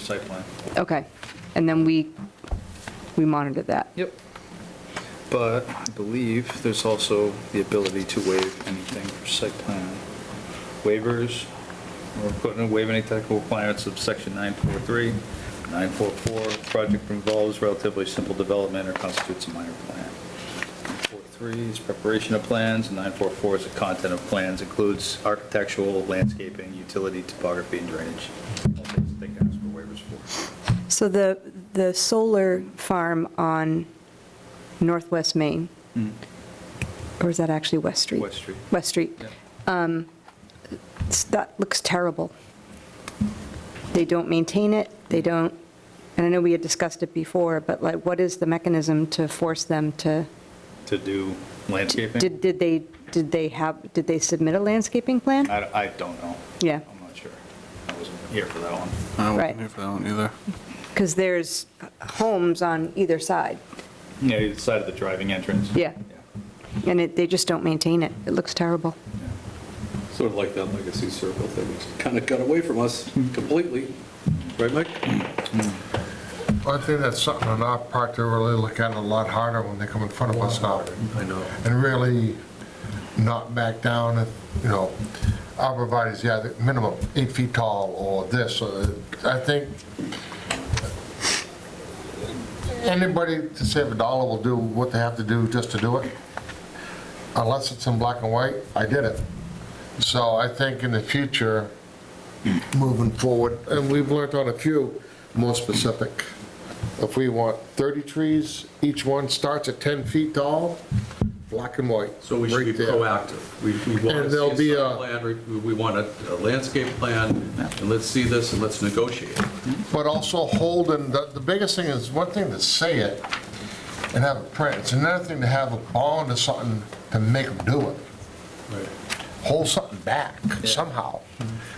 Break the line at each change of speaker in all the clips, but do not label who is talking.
site plan.
Okay, and then we, we monitored that.
Yep. But I believe there's also the ability to waive anything for site plan waivers. We're putting a waive any technical requirements of section 943, 944. Project involves relatively simple development or constitutes a minor plan. 943 is preparation of plans, and 944 is the content of plans, includes architectural, landscaping, utility, topography, and drainage. All things that they can ask for waivers for.
So the, the solar farm on Northwest Main, or is that actually West Street?
Mm-hmm. West Street.
West Street.
Yeah.
It's- That looks terrible. They don't maintain it, they don't, and I know we had discussed it before, but like, what is the mechanism to force them to?
To do landscaping?
Did, did they, did they have, did they submit a landscaping plan?
I, I don't know.
Yeah.
I'm not sure. I wasn't here for that one.
I
Right.
wasn't here for that one either.
Because there's homes on either side,
Yeah, you decided the driving entrance.
Yeah. and it, they just don't maintain it. It looks terrible.
Sort of like that legacy circle thing, it's kind of got away from us completely, right, Mike?
I think that's something on our part to really look at a lot harder when they come in front of us now.
I know.
And really not back down, if, you know, arborvitae's, yeah, the minimum eight feet tall or this. or- I think anybody to save a dollar will do what they have to do just to do it. Unless it's in black and white, I did it. So I think in the future, moving forward, and we've learned on a few more specific. If we want 30 trees, each one starts at 10 feet tall, black and white.
So we should be
right there.
proactive. We we want
And there'll
to
be
see a
a-
site plan, we- we want a a landscape plan, and let's see this and let's negotiate.
But also holding, the, the biggest thing is, one thing to say it and have it print, it's another thing to have a bond or something to make them do it. Hold something back somehow.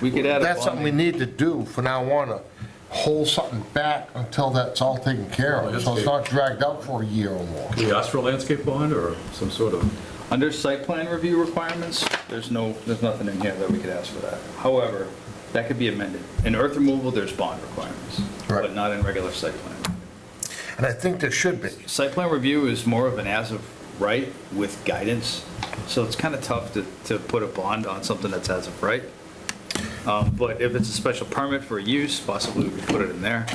We could add a
That's something we
bonding,
need to do for now on, to hold something back until that's all taken care of, so it's not dragged out for a year or more.
We ask for a landscape bond or some sort of,
under site plan review requirements, there's no, there's nothing in here that we could ask for that. However, that could be amended. In earth removal, there's bond requirements,
Right.
but not in regular site plan.
And I think there should be.
Site plan review is more of an as of right with guidance, so it's kind of tough to, to put a bond on something that's as of right. Um, But if it's a special permit for use, possibly we could put it in there.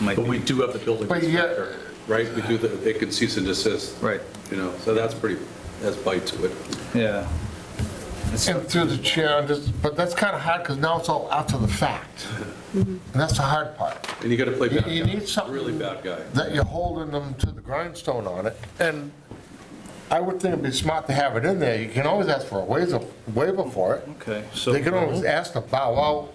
Might
but we
be,
do have the building
But yet-
inspector, right? We do, the- they can cease and desist.
Right.
You know, so that's pretty, that's bite to it.
yeah.
And through the chair, I'm just- but that's kind of hard, because now it's all after the fact. And that's the hard part,
And you got to play
You-
bad guy.
you need something-
Really bad guy.
that you're holding them to the grindstone on it. And I would think it'd be smart to have it in there. You can always ask for a waiver waiver for it.
Okay, so.
They can always ask to bow
All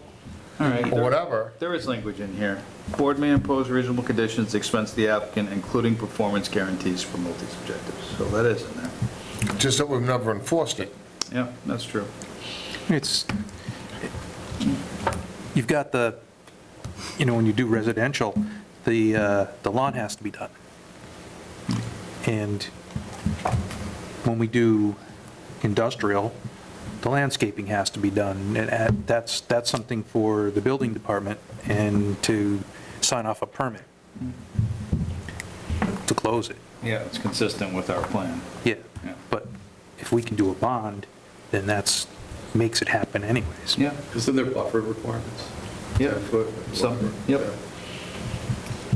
right.
out or whatever.
There is language in here. Board may impose reasonable conditions, to expense the applicant, including performance guarantees for multi-subjectives. So that is in there.
just that we've never enforced it.
Yeah, that's true.
It's, you've got the, you know, when you do residential, the, uh, the lawn has to be done. And when we do industrial, the landscaping has to be done. And at- that's, that's something for the building department and to sign off a permit to close it.
Yeah, it's consistent with our plan.
Yeah,
Yeah.
but if we can do a bond, then that's, makes it happen anyways.
Yeah,
Isn't there buffer requirements?
yeah,
Foot
some,
buffer.
yep.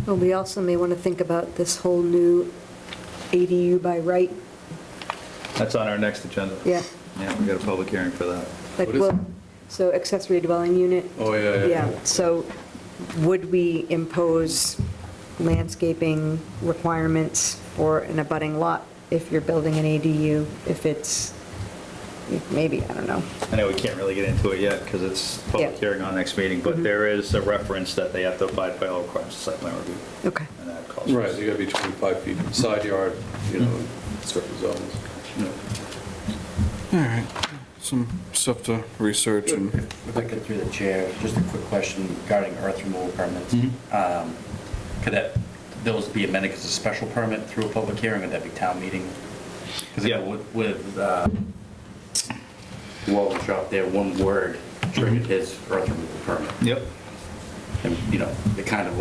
Well, we also may want to think about this whole new ADU by right,
That's on our next agenda.
yeah,
Yeah, we got a public hearing for that.
like,
What is
well,
it?
so accessory dwelling unit.
Oh, yeah, yeah, yeah.
so would we impose landscaping requirements for an abutting lot if you're building an ADU, if it's, maybe, I don't know.
I know we can't really get into it yet because it's public
Yeah. Mm-hmm.
hearing on next meeting, but there is a reference that they have to abide by all requirements of site plan review.
Okay,
And that calls. for-
Right, you gotta be 25 feet from side yard, you know, in certain zones.
All right, some stuff to research and,
Quick, through the chair, just a quick question regarding earth removal permits. Um, Could that, those be amended as a special permit through a public hearing, or that be town meeting? Because
Yeah.
with, with uh, Walton Shop there, one word triggered his earth removal permit.
Yep.
And, you know, it kind of